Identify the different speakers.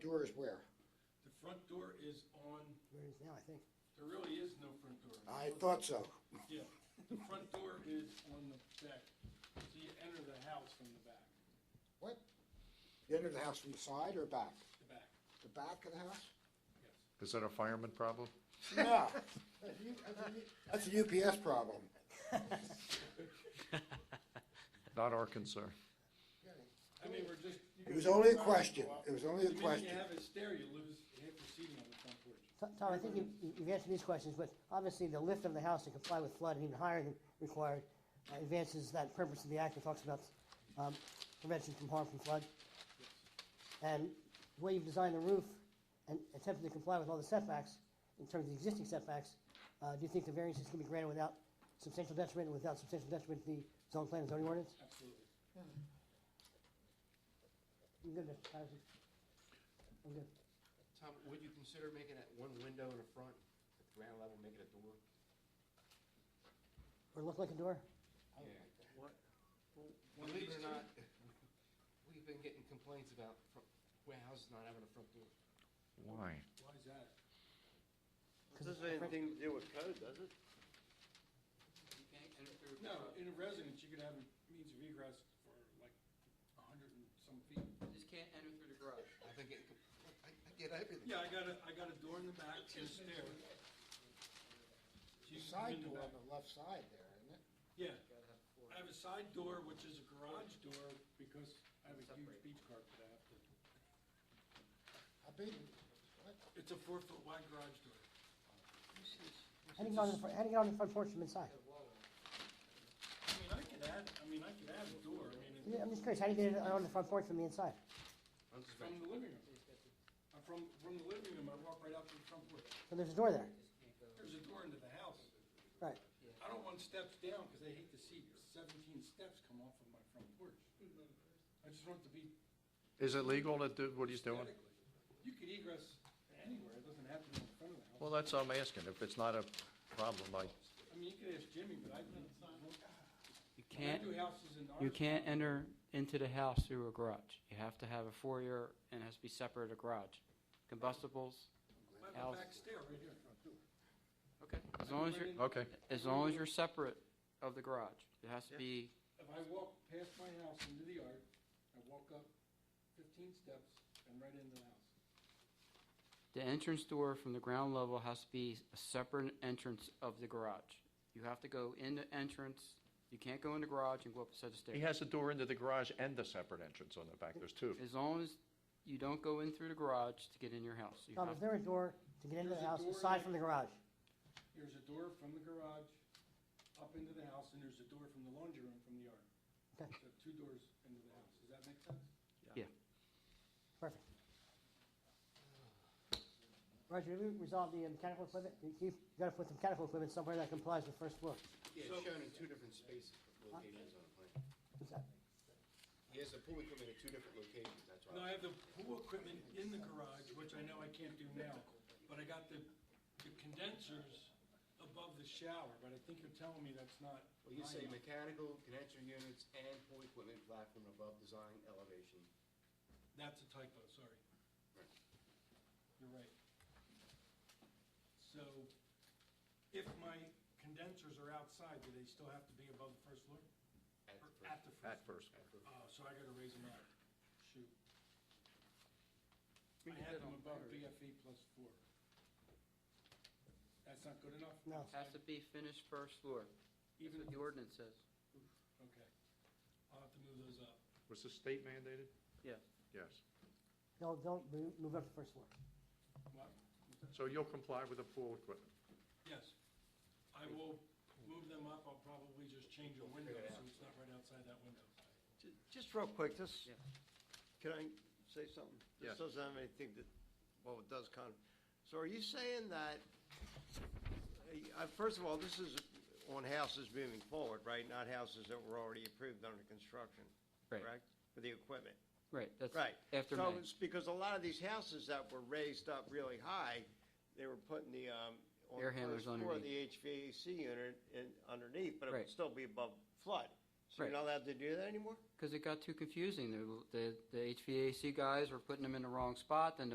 Speaker 1: Door is where?
Speaker 2: The front door is on,
Speaker 3: Where it is now, I think.
Speaker 2: there really is no front door.
Speaker 1: I thought so.
Speaker 2: Yeah, the front door is on the back, so you enter the house from the back,
Speaker 1: What? The end of the house from the side or back?
Speaker 2: the back,
Speaker 1: The back of the house?
Speaker 2: yes.
Speaker 4: Is that a fireman problem?
Speaker 1: No. That's a U- That's a UPS problem.
Speaker 4: Not our concern.
Speaker 2: I mean, we're just. you
Speaker 1: It was
Speaker 2: go-
Speaker 1: only a question. It was only a
Speaker 2: The minute
Speaker 1: question.
Speaker 2: you have a stair, you lose half the seating on the front porch.
Speaker 3: Tom, Tom, I think you- you- you've answered these questions, but obviously the lift of the house to comply with flood and even higher than required uh, advances that purpose of the act that talks about um, prevention from harm from flood. And the way you've designed the roof and attempted to comply with all the setbacks, in terms of the existing setbacks, uh, do you think the variances can be granted without substantial detriment, and without substantial detriment to the zone plan and zoning ordinance?
Speaker 2: Absolutely.
Speaker 3: I'm good, Mr. Patterson. I'm good.
Speaker 5: Tom, would you consider making that one window in the front, at the ground level, make it a door?
Speaker 3: Or look like a door?
Speaker 5: Yeah.
Speaker 2: Oh, What? One of
Speaker 5: Believe
Speaker 2: these
Speaker 5: it or
Speaker 2: two,
Speaker 5: not, we've been getting complaints about fro- warehouses not having a front door.
Speaker 4: Why?
Speaker 2: why is that?
Speaker 6: Doesn't have anything to do with code, does it?
Speaker 7: You can't enter through.
Speaker 2: No, in a residence, you could have a means of egress for like a hundred and some feet.
Speaker 7: You just can't enter through the garage.
Speaker 5: I've been getting, com- I, I get everything.
Speaker 2: Yeah, I got a, I got a door in the back and a stair. So you can come
Speaker 1: Side
Speaker 2: in the
Speaker 1: door on
Speaker 2: back.
Speaker 1: the left side there, isn't it?
Speaker 2: Yeah,
Speaker 7: Gotta have four.
Speaker 2: I have a side door, which is a garage door, because I have a huge beach carpet I have to.
Speaker 1: How big? What?
Speaker 2: It's a four-foot wide garage door.
Speaker 3: Heading on the, fr- heading on the front porch from inside.
Speaker 2: I mean, I could add, I mean, I could add a door, I mean,
Speaker 3: Yeah,
Speaker 2: it-
Speaker 3: I'm just curious, how do you get it on the front porch from the inside?
Speaker 2: from the living room. I'm from, from the living room, I walk right out to the front porch.
Speaker 3: So there's a door there,
Speaker 2: There's a door into the house.
Speaker 3: right?
Speaker 2: I don't want steps down, because I hate to see seventeen steps come off of my front porch. I just want it to be
Speaker 4: Is it legal to do what he's doing?
Speaker 2: aesthetically. You could egress anywhere, it doesn't have to be in front of the house.
Speaker 4: Well, that's what I'm asking. If it's not a problem, I,
Speaker 2: I mean, you could ask Jimmy, but I think,
Speaker 7: You
Speaker 2: I do
Speaker 7: can't,
Speaker 2: houses in ours.
Speaker 7: you can't enter into the house through a garage. You have to have a foyer and it has to be separate a garage. Combustibles,
Speaker 2: I have a
Speaker 7: house.
Speaker 2: back stair right here.
Speaker 7: okay, as long as you're,
Speaker 4: okay.
Speaker 7: as long as you're separate of the garage. It has to be,
Speaker 2: If I walk past my house into the yard, I walk up fifteen steps and right into the house.
Speaker 7: the entrance door from the ground level has to be a separate entrance of the garage. You have to go in the entrance, you can't go in the garage and go up a set of stairs.
Speaker 4: he has a door into the garage and a separate entrance on the back. There's two.
Speaker 7: As long as you don't go in through the garage to get in your house. You
Speaker 3: Tom,
Speaker 7: have
Speaker 3: is there a door to get into
Speaker 2: There's
Speaker 3: the
Speaker 2: a
Speaker 3: house
Speaker 2: door
Speaker 3: aside
Speaker 2: in-
Speaker 3: from the garage?
Speaker 2: There's a door from the garage up into the house, and there's a door from the laundry room from the yard. So
Speaker 3: Okay.
Speaker 2: two doors into the house. Does that make sense?
Speaker 7: Yeah.
Speaker 3: Perfect. Roger, did we resolve the uh, mechanical equipment? You- You've got to put the mechanical equipment somewhere that complies with first floor.
Speaker 5: Yeah, it's shown in two different spaces, locations on the plan.
Speaker 3: What's that?
Speaker 5: He has the pool equipment at two different locations, that's why.
Speaker 2: No, I have the pool equipment in the garage, which I know I can't do now, but I got the, the condensers above the shower, but I think you're telling me that's not.
Speaker 5: Well, you
Speaker 2: high
Speaker 5: say
Speaker 2: enough.
Speaker 5: mechanical, connection units, and pool equipment platform above design elevation.
Speaker 2: That's a typo, sorry. You're right. So if my condensers are outside, do they still have to be above the first floor?
Speaker 5: At
Speaker 2: Or
Speaker 5: the
Speaker 2: At
Speaker 5: first-
Speaker 2: the first?
Speaker 4: At first.
Speaker 5: at the-
Speaker 2: Oh, so I gotta raise them up. Shoot. I had them above BFE plus four. That's not good enough?
Speaker 3: No.
Speaker 7: Has to be finished first floor. That's
Speaker 2: Even,
Speaker 7: what the ordinance says.
Speaker 2: okay. I'll have to move those up.
Speaker 4: Was the state mandated?
Speaker 7: Yeah.
Speaker 4: Yes.
Speaker 3: No, don't move move up to first floor.
Speaker 2: What?
Speaker 4: So you'll comply with the pool equipment?
Speaker 2: Yes. I will move them up. I'll probably just change a window so it's not right outside that window.
Speaker 6: Ju- Just real quick, this,
Speaker 7: Yeah.
Speaker 6: can I say something?
Speaker 4: Yes.
Speaker 6: This doesn't have anything to, well, it does kind of, so are you saying that, uh, first of all, this is on houses moving forward, right? Not houses that were already approved under construction,
Speaker 7: Right.
Speaker 6: correct? For the equipment.
Speaker 7: Right, that's
Speaker 6: Right.
Speaker 7: after
Speaker 6: So
Speaker 7: May.
Speaker 6: it's because a lot of these houses that were raised up really high, they were putting the, um, on
Speaker 7: Air
Speaker 6: the
Speaker 7: handlers
Speaker 6: first floor of the
Speaker 7: underneath.
Speaker 6: HVAC unit in, underneath, but it
Speaker 7: Right.
Speaker 6: would still be above flood. So you're
Speaker 7: Right.
Speaker 6: not allowed to do that anymore?
Speaker 7: Because it got too confusing. The, the the HVAC guys were putting them in the wrong spot, then the